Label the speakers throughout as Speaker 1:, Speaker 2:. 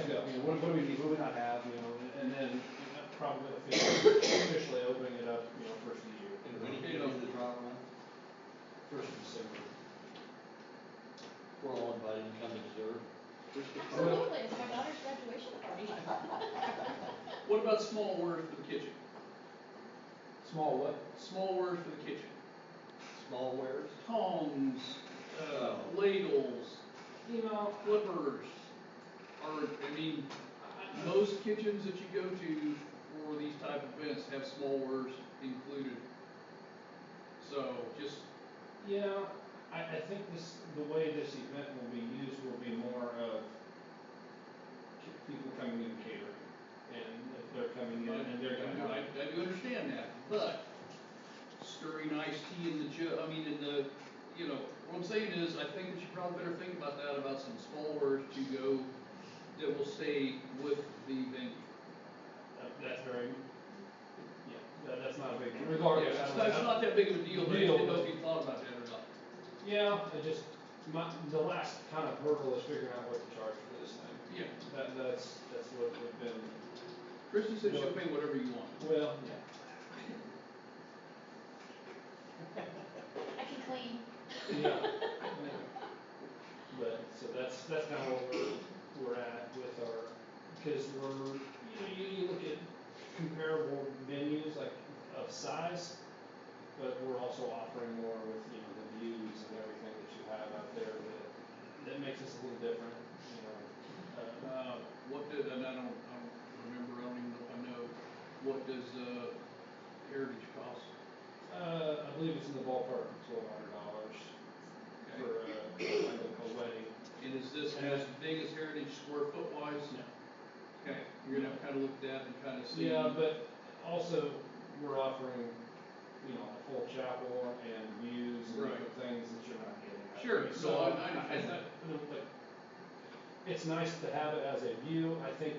Speaker 1: what, what do we need, what do we not have, you know, and then you know, probably officially officially opening it up, you know, first of the year.
Speaker 2: And when you get off the drop line,
Speaker 1: First of December.
Speaker 2: we're all invited to come observe.
Speaker 3: Absolutely, it's my daughter's graduation party.
Speaker 4: What about small order for the kitchen?
Speaker 1: Small what?
Speaker 4: Small order for the kitchen?
Speaker 2: Small wares,
Speaker 4: Tongs, uh, ladles, you know, flippers, or, I mean, most kitchens that you go to for these type of events have small orders included. So just,
Speaker 1: You know, I, I think this, the way this event will be used will be more of ki- people coming in catering. And if they're coming in and they're gonna
Speaker 4: I,
Speaker 1: have,
Speaker 4: I do understand that, but stirring iced tea in the jug, I mean, in the, you know, what I'm saying is, I think that you probably better think about that, about some small orders to go that will stay with the venue.
Speaker 1: that- "Uh, that's very, yeah, that, that's not a big, regardless. I
Speaker 4: Yeah, it's
Speaker 1: don't
Speaker 4: not,
Speaker 1: know.
Speaker 4: it's not that big of a deal, but it
Speaker 1: Deal.
Speaker 4: it must be thought about that or not.
Speaker 1: Yeah, I just, my, the last kind of hurdle is figuring out what to charge for this thing.
Speaker 4: Yeah,
Speaker 1: That, that's, that's what we've been,
Speaker 4: Kristen said she'll
Speaker 1: No.
Speaker 4: pay whatever you want.
Speaker 1: well, yeah.
Speaker 3: I can clean.
Speaker 1: Yeah. But, so that's, that's kind of what we're, we're at with our, because we're, you know, you, you look at comparable venues like of size, but we're also offering more with, you know, the views and everything that you have out there that, that makes us a little different, you know. Uh,
Speaker 4: Uh, what did, and I don't, I don't remember, I don't even know if I know, what does, uh, Heritage cost?
Speaker 1: Uh, I believe it's in the ballpark of twelve hundred dollars
Speaker 4: Okay.
Speaker 1: for uh, like a wedding.
Speaker 4: And is this as big as Heritage square foot wise? Okay, you're gonna have to kinda look at that and kinda see.
Speaker 1: Yeah, but also we're offering, you know, a full chapel and views and
Speaker 4: Right.
Speaker 1: different things that you're not getting. out
Speaker 4: Sure,
Speaker 1: there.
Speaker 4: no, I- I understand that.
Speaker 1: I- like, It's nice to have it as a view. I think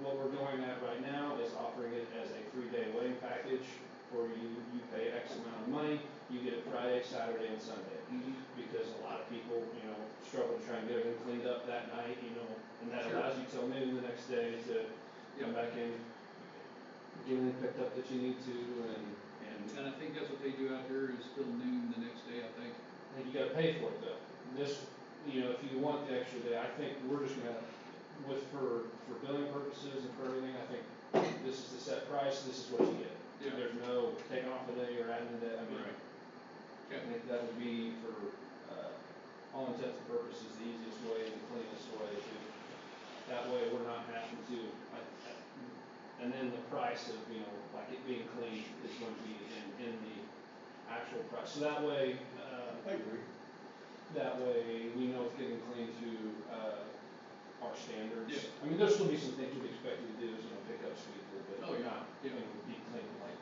Speaker 1: what we're going at right now is offering it as a three-day wedding package where you, you pay X amount of money, you get it Friday, Saturday, and Sunday
Speaker 4: Mhm.
Speaker 1: because a lot of people, you know, struggle to try and get everything cleaned up that night, you know, and that
Speaker 4: Sure.
Speaker 1: allows you till noon the next day to come back in, get everything picked up that you need to, and, and
Speaker 4: And I think that's what they do out here is till noon the next day, I think.
Speaker 1: and you gotta pay for it though. This, you know, if you want the extra day, I think we're just gonna, with, for, for billing purposes and for everything, I think this is the set price, this is what you get.
Speaker 4: Yeah.
Speaker 1: There's no taking off a day or adding a day, I mean, I
Speaker 4: Okay,
Speaker 1: think that would be for, uh, all intents and purposes, the easiest way and the cleanest way to, that way we're not having to, I, I- and then the price of, you know, like it being clean is gonna be in, in the actual price. So that way, uh,
Speaker 2: I agree.
Speaker 1: that way we know it's getting clean to, uh, our standards.
Speaker 4: Yeah.
Speaker 1: I mean, there'll still be some things you'd expect you to do, is, you know, pick up sweeper, but
Speaker 4: Oh, yeah,
Speaker 1: not, you
Speaker 4: yeah.
Speaker 1: know, be clean, like,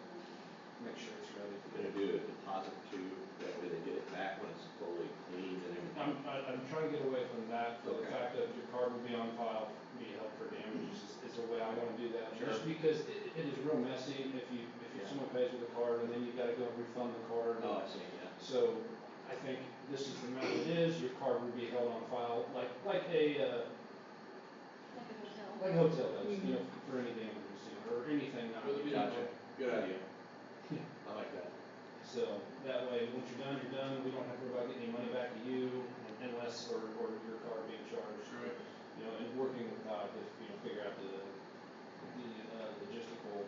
Speaker 1: make sure it's ready.
Speaker 5: We're gonna do a deposit too, that way they get it back when it's fully cleaned and everything.
Speaker 1: I'm, I- I'm trying to get away from that, for the
Speaker 5: Okay.
Speaker 1: fact that your card will be on file, be held for damages, is- is the way I wanna do that. Just
Speaker 5: Sure.
Speaker 1: because it, it is real messy if you, if you-
Speaker 5: Yeah.
Speaker 1: someone pays with a card and then you gotta go and refund the card.
Speaker 5: Oh, I see, yeah.
Speaker 1: So I think this is the method it is, your card will be held on file, like, like a, uh,
Speaker 3: Like a hotel.
Speaker 1: like a hotel does, you know, for any damages, you know, or anything. not-
Speaker 4: Really good
Speaker 5: Gotcha, good idea.
Speaker 1: Yeah.
Speaker 5: I like that.
Speaker 1: So that way, once you're done, you're done, we don't have to worry about getting any money back to you unless, or, or your card being charged.
Speaker 4: sure.
Speaker 1: you know, and working with Todd to, you know, figure out the, the, uh, logistical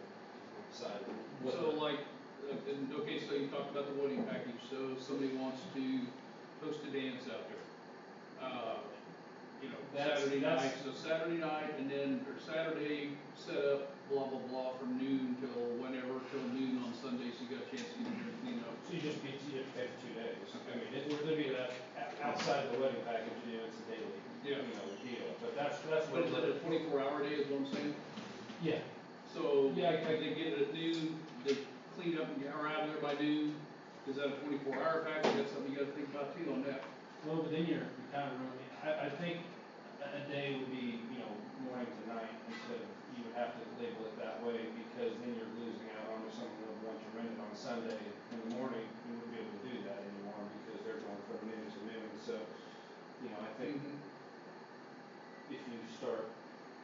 Speaker 1: side. of what
Speaker 4: So
Speaker 1: the-
Speaker 4: like, uh, then- okay, so you talked about the wedding package, so if somebody wants to host a dance out there. Uh, You know,
Speaker 1: That's-
Speaker 4: Saturday night,
Speaker 1: that's-
Speaker 4: so Saturday night and then, or Saturday setup, blah, blah, blah, from noon till whenever, till noon on Sundays, you got a chance to get your clean up.
Speaker 1: So you just be, you have to pay for two days. I mean, it would be that, o- outside of the wedding package, you know, it's a daily, you
Speaker 4: Yeah.
Speaker 1: know, deal, but that's, that's what.
Speaker 4: But is that a twenty-four hour day is what I'm saying?
Speaker 1: Yeah,
Speaker 4: So,
Speaker 1: Yeah, I-
Speaker 4: if they get it at noon, they clean up and get are out of there by noon, is that a twenty-four hour package? That's something you gotta think about too on that.
Speaker 1: well, but then you're, you're kind of ruining, I, I think a a day would be, you know,
Speaker 4: Mm-hmm.